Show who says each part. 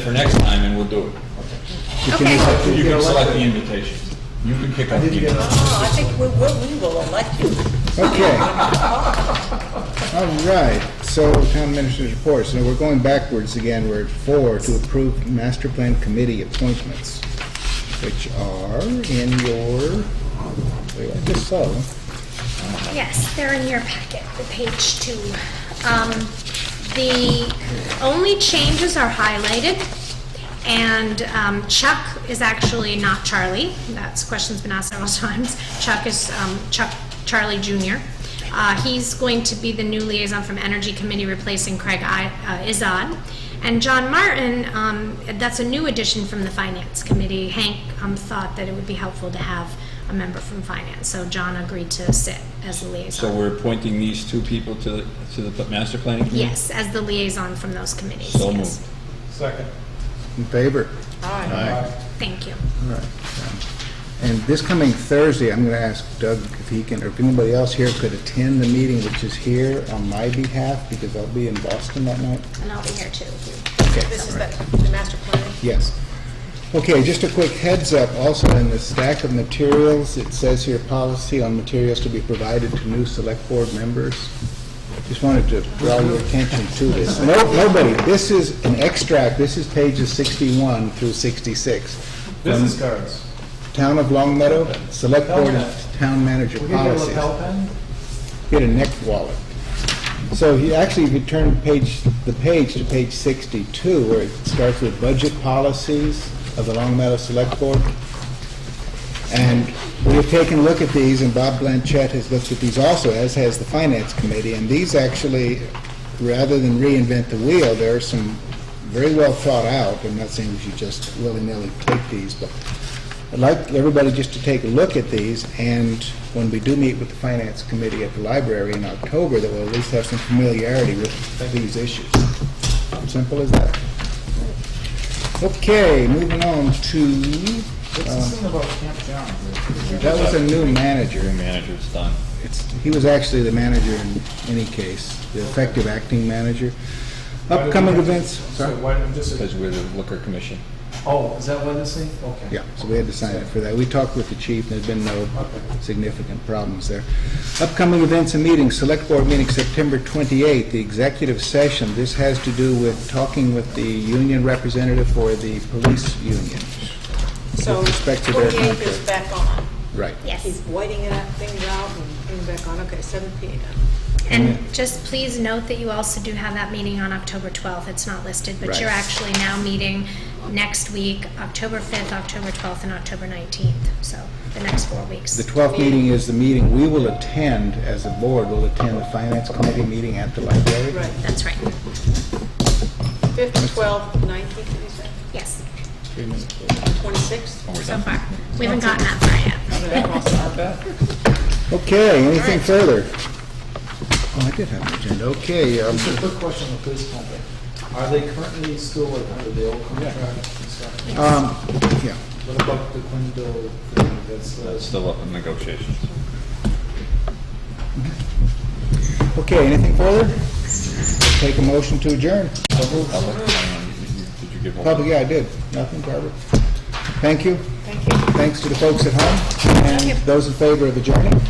Speaker 1: for next time and we'll do
Speaker 2: Okay,
Speaker 1: it. You can select the invitation. You can pick up the invitation.
Speaker 3: Oh, I think we will, we will elect you.
Speaker 4: Okay. All right, so town administrator's report, so we're going backwards again, we're at four, to approve master plan committee appointments, which are in your, wait, I just saw them.
Speaker 2: yes, they're in your packet, the page two. Um, The only changes are highlighted, and um, Chuck is actually not Charlie. That's, question's been asked several times. Chuck is um, Chuck Charlie Jr. Uh, He's going to be the new liaison from Energy Committee, replacing Craig I- uh, Izod. And John Martin, um, that's a new addition from the Finance Committee. Hank um, thought that it would be helpful to have a member from Finance, so John agreed to sit as the
Speaker 1: So
Speaker 2: liaison.
Speaker 1: we're appointing these two people to, the- to the master planning committee?
Speaker 2: Yes, as the liaison from those committees,
Speaker 1: So
Speaker 2: yes.
Speaker 1: moved.
Speaker 5: Second.
Speaker 4: In favor?
Speaker 2: Thank you.
Speaker 4: All right. um, And this coming Thursday, I'm going to ask Doug if he can, or if anybody else here could attend the meeting, which is here on my behalf, because I'll be in Boston that night.
Speaker 2: And I'll be here too.
Speaker 3: This is the, the master plan.
Speaker 4: Yes. Okay, just a quick heads up, also in the stack of materials, it says here policy on materials to be provided to new select board members. Just wanted to draw your attention to this. No, nobody, this is an extract, this is pages 61 through 66.
Speaker 5: Business cards.
Speaker 4: Town of Long Meadow, select board and town manager
Speaker 5: Will you get a
Speaker 4: policies.
Speaker 5: lapel pin?
Speaker 4: Get a neck wallet. So he actually, if you turn page, the page to page 62, where it starts with budget policies of the Long Meadow Select Board. And we have taken a look at these, and Bob Blanchett has looked at these also, as has the Finance Committee. And these actually, rather than reinvent the wheel, there are some very well thought out, I'm not saying you should just willy-nilly take these, but I'd like everybody just to take a look at these, and when we do meet with the Finance Committee at the library in October, that we'll at least have some familiarity with these issues. Simple as that. Okay, moving on to
Speaker 5: What's
Speaker 4: Uh,
Speaker 5: this thing about Camp John?
Speaker 4: that was a new manager.
Speaker 1: Your manager's done.
Speaker 4: It's, he was actually the manager in any case, the effective acting manager.
Speaker 5: Why do we
Speaker 4: Upcoming
Speaker 5: have to-
Speaker 4: events,
Speaker 5: So
Speaker 4: sorry.
Speaker 5: why, don't this
Speaker 1: Because
Speaker 5: is,
Speaker 1: we're the liquor commission.
Speaker 5: oh, is that why this thing? Okay.
Speaker 4: Yeah, so we had to sign it for that. We talked with the chief, there's been no significant problems there. Upcoming events and meetings, select board meeting September 28th, the executive session. This has to do with talking with the union representative for the police union.
Speaker 3: So
Speaker 4: With respect to their
Speaker 3: 48 is
Speaker 4: contract.
Speaker 3: back on.
Speaker 4: Right.
Speaker 3: He's
Speaker 2: Yes.
Speaker 3: whiting it out, things out and putting it back on. Okay, 7 p.m.
Speaker 2: And just please note that you also do have that meeting on October 12th. It's not listed, but
Speaker 4: Right.
Speaker 2: you're actually now meeting next week, October 5th, October 12th, and October 19th, so the next four weeks.
Speaker 4: The 12th meeting is the meeting we will attend, as a board, we'll attend the finance committee meeting at the library.
Speaker 3: Right.
Speaker 2: That's right.
Speaker 3: 5th, 12th, 19th, you said?
Speaker 2: Yes,
Speaker 4: Three minutes.
Speaker 3: 26th?
Speaker 2: so far. We haven't gotten that far yet.
Speaker 4: Okay, anything further? Oh, I did have an agenda, okay. um,
Speaker 5: Just a quick question on the police contract. Are they currently still like under the old contract and stuff?
Speaker 4: um, Yeah,
Speaker 5: What about the Quinville thing that's, uh,
Speaker 1: That's still up in negotiations.
Speaker 4: okay, anything further? Take a motion to adjourn.
Speaker 1: Public, um, Did you give all?
Speaker 4: Probably, yeah, I did, nothing, Barbara. Thank you,
Speaker 3: Thank you.
Speaker 4: thanks to the folks at home, and those in favor of adjourning.